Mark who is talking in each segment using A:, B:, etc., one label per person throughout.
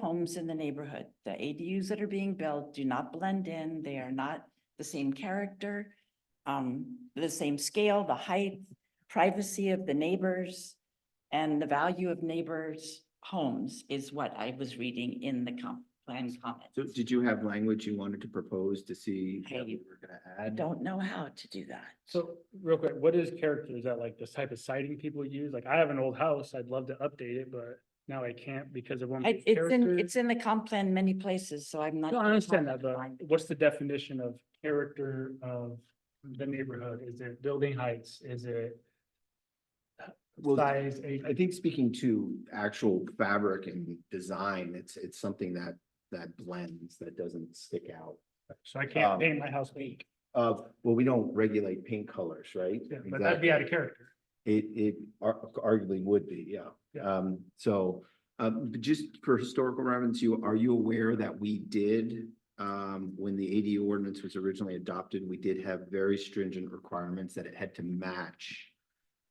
A: homes in the neighborhood. The ADUs that are being built do not blend in. They are not the same character, um, the same scale, the height, privacy of the neighbors, and the value of neighbors' homes is what I was reading in the comp plan comment.
B: So did you have language you wanted to propose to see?
A: I-
B: that we were gonna
A: I
B: add?
A: don't know how to do that.
C: So real quick, what is character? Is that like this type of siding people use? Like I have an old house, I'd love to update it, but now I can't because of one.
A: I- It's in, it's in the comp plan many places, so I'm not.
C: No, I
A: sure how
C: understand
A: to
C: that, but
A: find it.
C: what's the definition of character of the neighborhood? Is it building heights? Is it
B: Well,
C: size? age?
B: I think speaking to actual fabric and design, it's, it's something that, that blends, that doesn't stick out.
C: So I can't
B: um,
C: paint my house pink,
B: Of, well, we don't regulate paint colors, right?
C: Yeah, but that'd be out of character.
B: It, it ar- arguably would be, yeah.
C: Yeah.
B: Um, so, um, but just for historical reference, you, are you aware that we did, um, when the ADU ordinance was originally adopted, we did have very stringent requirements that it had to match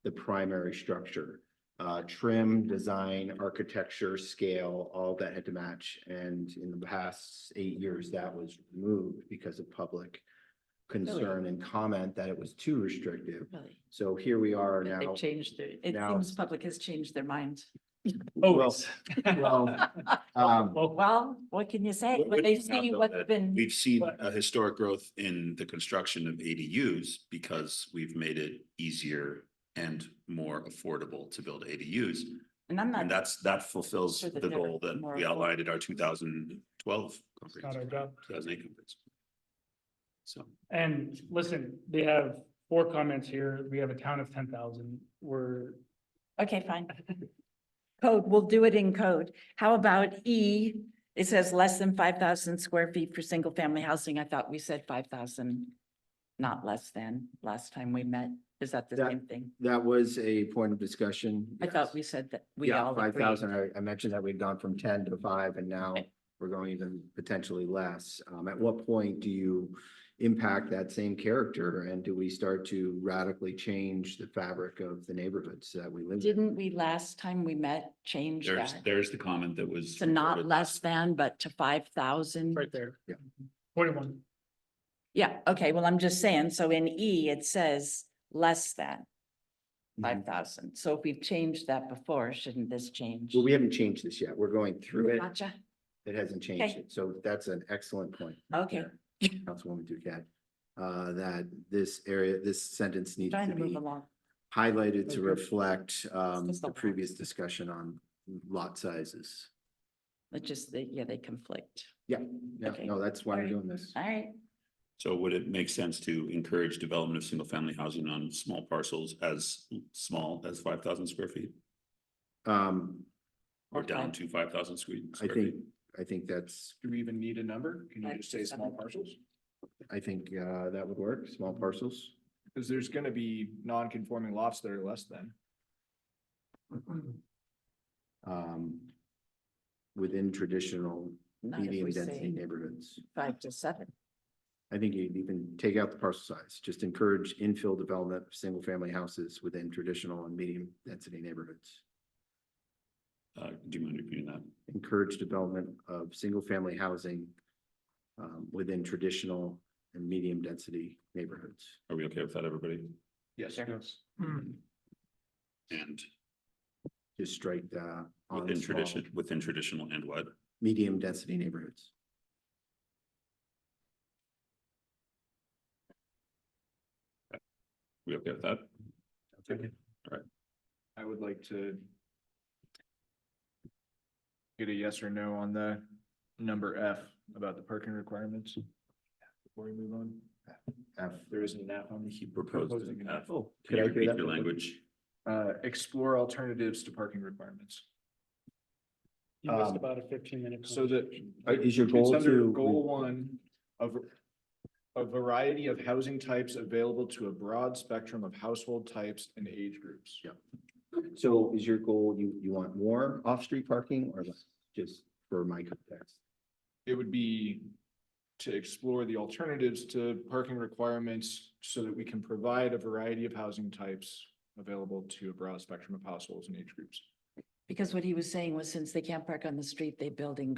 B: the primary structure, uh, trim, design, architecture, scale, all that had to match. And in the past eight years, that was removed because of public concern and comment that it was too restrictive.
A: Really.
B: So here we are now.
A: They've changed their, it
B: now-
A: seems public has changed their mind.
B: Well,
C: Always.
B: well, um,
C: Well,
A: Well, what can you say? When
D: What- what
A: they
D: do you have,
A: see
D: though,
A: what's
D: that
A: been,
D: We've seen
C: But-
D: a historic growth in the construction of ADUs because we've made it easier and more affordable to build ADUs.
A: and I'm not,
D: And that's, that fulfills
A: Sure that
D: the
A: they're
D: goal that
A: more
D: we outlined in our two thousand twelve.
C: it's not our job.
D: Two thousand eight conference. So.
C: And listen, they have four comments here. We have a town of ten thousand. We're
A: okay, fine. Code, we'll do it in code. How about E? It says less than five thousand square feet for single family housing. I thought we said five thousand, not less than, last time we met. Is that the
B: That-
A: same thing?
B: that was a point of discussion.
A: I
B: yes.
A: thought we said that we
B: Yeah,
A: all
B: five
A: agreed.
B: thousand. I, I mentioned that we'd gone from ten to five and now
A: Okay.
B: we're going even potentially less. Um, at what point do you impact that same character and do we start to radically change the fabric of the neighborhoods that we live in?
A: Didn't we last time we met change
D: There's,
A: that?
D: there's the comment that was.
A: To not
D: reported.
A: less than, but to five thousand?
C: right there.
B: Yeah.
C: Forty-one.
A: Yeah, okay, well, I'm just saying, so in E, it says less than
B: Mm-hmm.
A: five thousand. So if we've changed that before, shouldn't this change?
B: Well, we haven't changed this yet. We're going through it.
A: Gotcha,
B: It hasn't changed
A: Okay.
B: it. So that's an excellent point.
A: okay,
B: there, Councilwoman Duquette, uh, that this area, this sentence needs
A: trying
B: to
A: to move
B: be
A: along.
B: highlighted to
C: Okay.
B: reflect um
A: just a
B: the
A: lot.
B: previous discussion on lot sizes.
A: It just, they- yeah, they conflict.
B: Yeah, yeah,
A: Okay.
B: no, that's why we're
A: Alright.
B: doing this.
A: All right,
D: So would it make sense to encourage development of single family housing on small parcels as small as five thousand square feet?
B: Um,
D: Or
A: Okay.
D: down to five thousand square.
B: I
D: square feet?
B: think, I think that's,
E: Do we even need a number? Can
A: Five
E: you just say
A: to seven.
E: small parcels?
B: I think uh that would work, small parcels.
E: Because there's gonna be non-conforming lots that are less than.
B: Um. Within traditional
A: not if
B: medium
A: we
B: density
A: say
B: neighborhoods.
A: five to seven.
B: I think you even take out the parcel size, just encourage infill development of single family houses within traditional and medium density neighborhoods.
D: Uh, do you mind repeating that?
B: encourage development of single-family housing um, within traditional and medium-density neighborhoods.
D: Are we okay with that, everybody?
E: Yes.
C: Hmm.
D: And
B: Just strike uh on
D: within
B: small,
D: tradition, within traditional and what?
B: medium-density neighborhoods.
D: We okay with that?
E: I would like to get a yes or no on the number F about the parking requirements before we move on.
B: F.
E: There isn't an F on the.
D: He proposed
E: Proposing
D: an
E: an
D: F.
E: F.
B: Oh,
D: Can you
B: could I hear
D: repeat
B: that?
D: your language?
E: Uh, explore alternatives to parking requirements.
C: You missed
B: Um,
C: about a fifteen minute.
E: So that.
B: Uh, is your goal
E: It's under
B: to-
E: Goal one of a variety of housing types available to a broad spectrum of household types and age groups.
B: Yeah. So is your goal, you, you want more off-street parking or less? just for my context?
E: It would be to explore the alternatives to parking requirements so that we can provide a variety of housing types available to a broad spectrum of households and age groups.
A: Because what he was saying was since they can't park on the street, they building